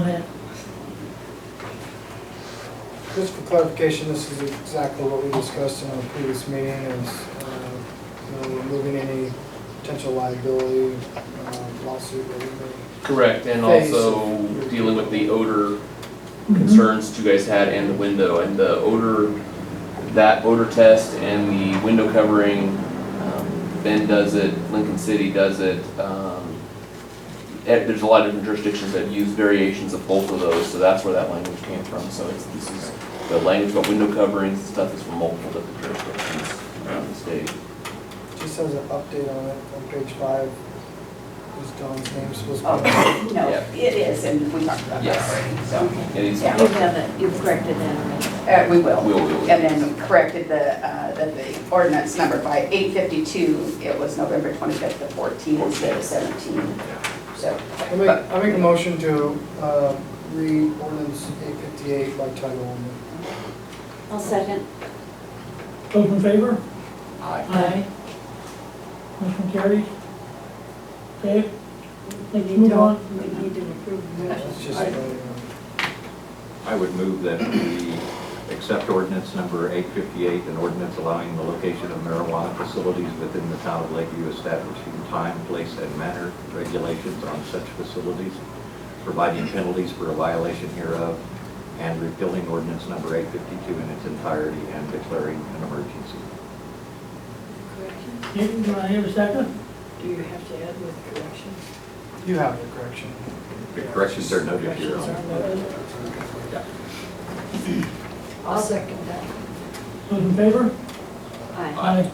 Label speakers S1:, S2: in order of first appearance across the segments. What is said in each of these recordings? S1: minute.
S2: Just for clarification, this is exactly what we discussed in our previous meeting, is, uh, you know, removing any potential liability uh, lawsuit that we may.
S3: Correct, and
S2: Face.
S3: also dealing with the odor concerns you guys had and the window, and the odor, that odor test and the window covering, um, Ben does it, Lincoln City does it. um, eh, There's a lot of different jurisdictions that use variations of both of those, so that's where that language came from, so it's, this is, the language about window coverings and stuff is from multiple different jurisdictions around the state.
S2: Just as an update on it, on page five, is Dawn's name supposed to be?
S4: Oh, no,
S3: Yeah.
S4: it is, and we talked about that
S3: Yes.
S4: already, so.
S3: It is,
S4: Yeah.
S1: You have it, you've corrected that already.
S4: Uh, we will.
S3: We'll- we'll-
S4: And then corrected the, uh, that the ordinance number by eight fifty-two, it was November twenty-fifth to fourteen instead of seventeen, so.
S2: I make, I make a motion to uh, read ordinance eight fifty-eight by title only.
S1: I'll second.
S5: Those in favor?
S1: Aye.
S5: Motion carried. Okay,
S6: We need
S5: Move
S6: to,
S5: on.
S6: we need to approve the motion.
S2: It's just,
S4: Aye.
S2: uh,
S7: I would move that we accept ordinance number 858, an ordinance allowing the location of marijuana facilities within the town of Lakeview, establishing time, place, and manner regulations on such facilities, providing penalties for a violation hereof, and repealing ordinance number 852 in its entirety and declaring an emergency.
S6: Corrections?
S5: Hayden, do I hear a second?
S6: Do you have to add with corrections?
S2: You have the correction.
S7: The corrections are noted here.
S6: Corrections are noted. I'll second that.
S5: Those in favor?
S1: Aye.
S5: Aye.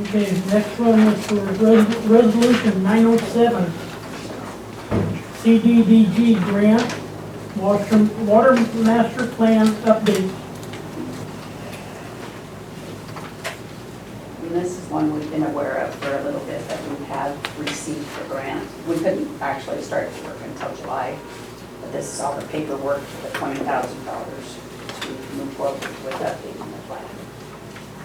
S5: Okay, next one is for res- resolution nine oh seven. CDBG grant, water, water master plan update.
S4: And this is one we've been aware of for a little bit, that we have received the grant. We couldn't actually start to work until July, but this is all the paperwork for the twenty thousand dollars to move forward with updating the plan.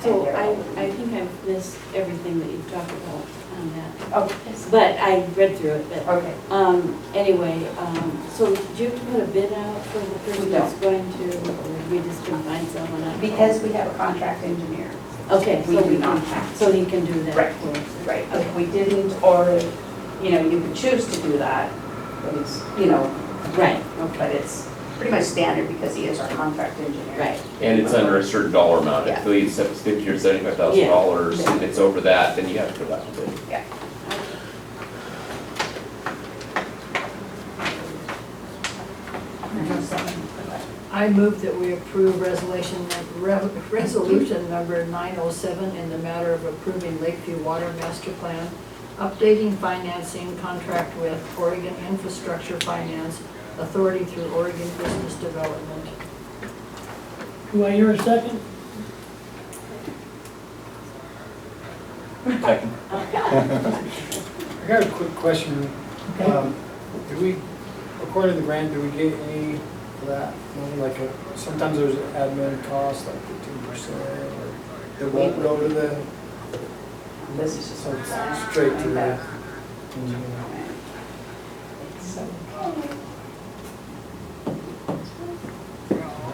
S8: So I, Oh, I think I've missed everything that you've talked about on that,
S4: Oh, yes.
S8: but I read through it, but,
S4: Oh, okay.
S8: um, anyway, um, so do you have to put a bid out for the person that's going to, or we just can find someone else?
S4: Because we have a contract engineer.
S8: Okay,
S4: We
S8: so
S4: do
S8: we
S4: not
S8: can,
S4: have.
S8: so he can do
S4: Right.
S8: that for us.
S4: Right, if we didn't, or, you know, you could choose to do that, but it's, you know,
S8: Right,
S4: but it's pretty much standard because he is our contract engineer.
S8: right,
S3: And it's under a certain dollar amount, I
S4: Yeah.
S3: believe it's fifty or seventy-five thousand dollars, if it's over that, then you have to go back to bid.
S4: Mm-hmm.
S6: I move that we approve resolution, re- resolution number 907 in the matter of approving Lakeview Water Master Plan, updating financing contract with Oregon Infrastructure Finance Authority through Oregon Business Development.
S5: Do I hear a second?
S2: I got a quick question.
S5: Okay.
S2: Um, Do we, according to the grant, do we get any of that money? Like, uh, sometimes there's admin costs, like fifteen percent, or it won't go to the,
S4: This is just.
S2: so it's straight to the engineer.
S4: So,
S2: All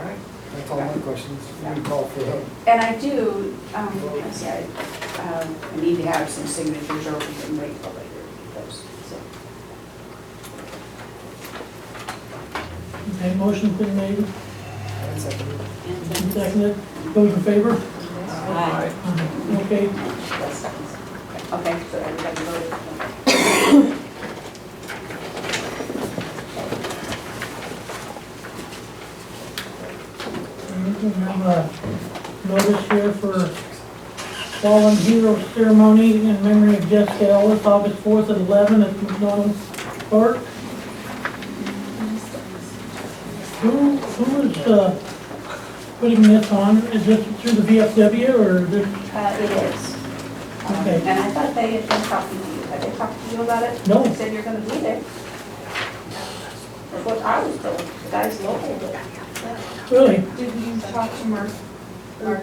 S2: right, that's all my questions. You can call for help.
S4: And I do, um, I said, um, I need to have some signatures or we can wait till later. Those, so.
S5: Okay, motion's been made
S2: That's it.
S8: and
S5: and
S8: then,
S5: seconded. Those in favor?
S8: aye.
S5: Okay,
S4: That's- Okay, so everybody voted.
S5: we have a uh, notice here for Fallen Hero Ceremony in memory of Jessica Ellis, August 4th at 11 at McDonald's Park. Who, who is uh, putting this on? Is this through the VFW or is it,
S4: Uh, it is. Um,
S5: Okay.
S4: And I thought they had been talking to you, had they talked to you about it?
S5: No.
S4: They said you're gonna be there. That's what I was told, the guys local.
S5: really?
S9: Did you talk to Mark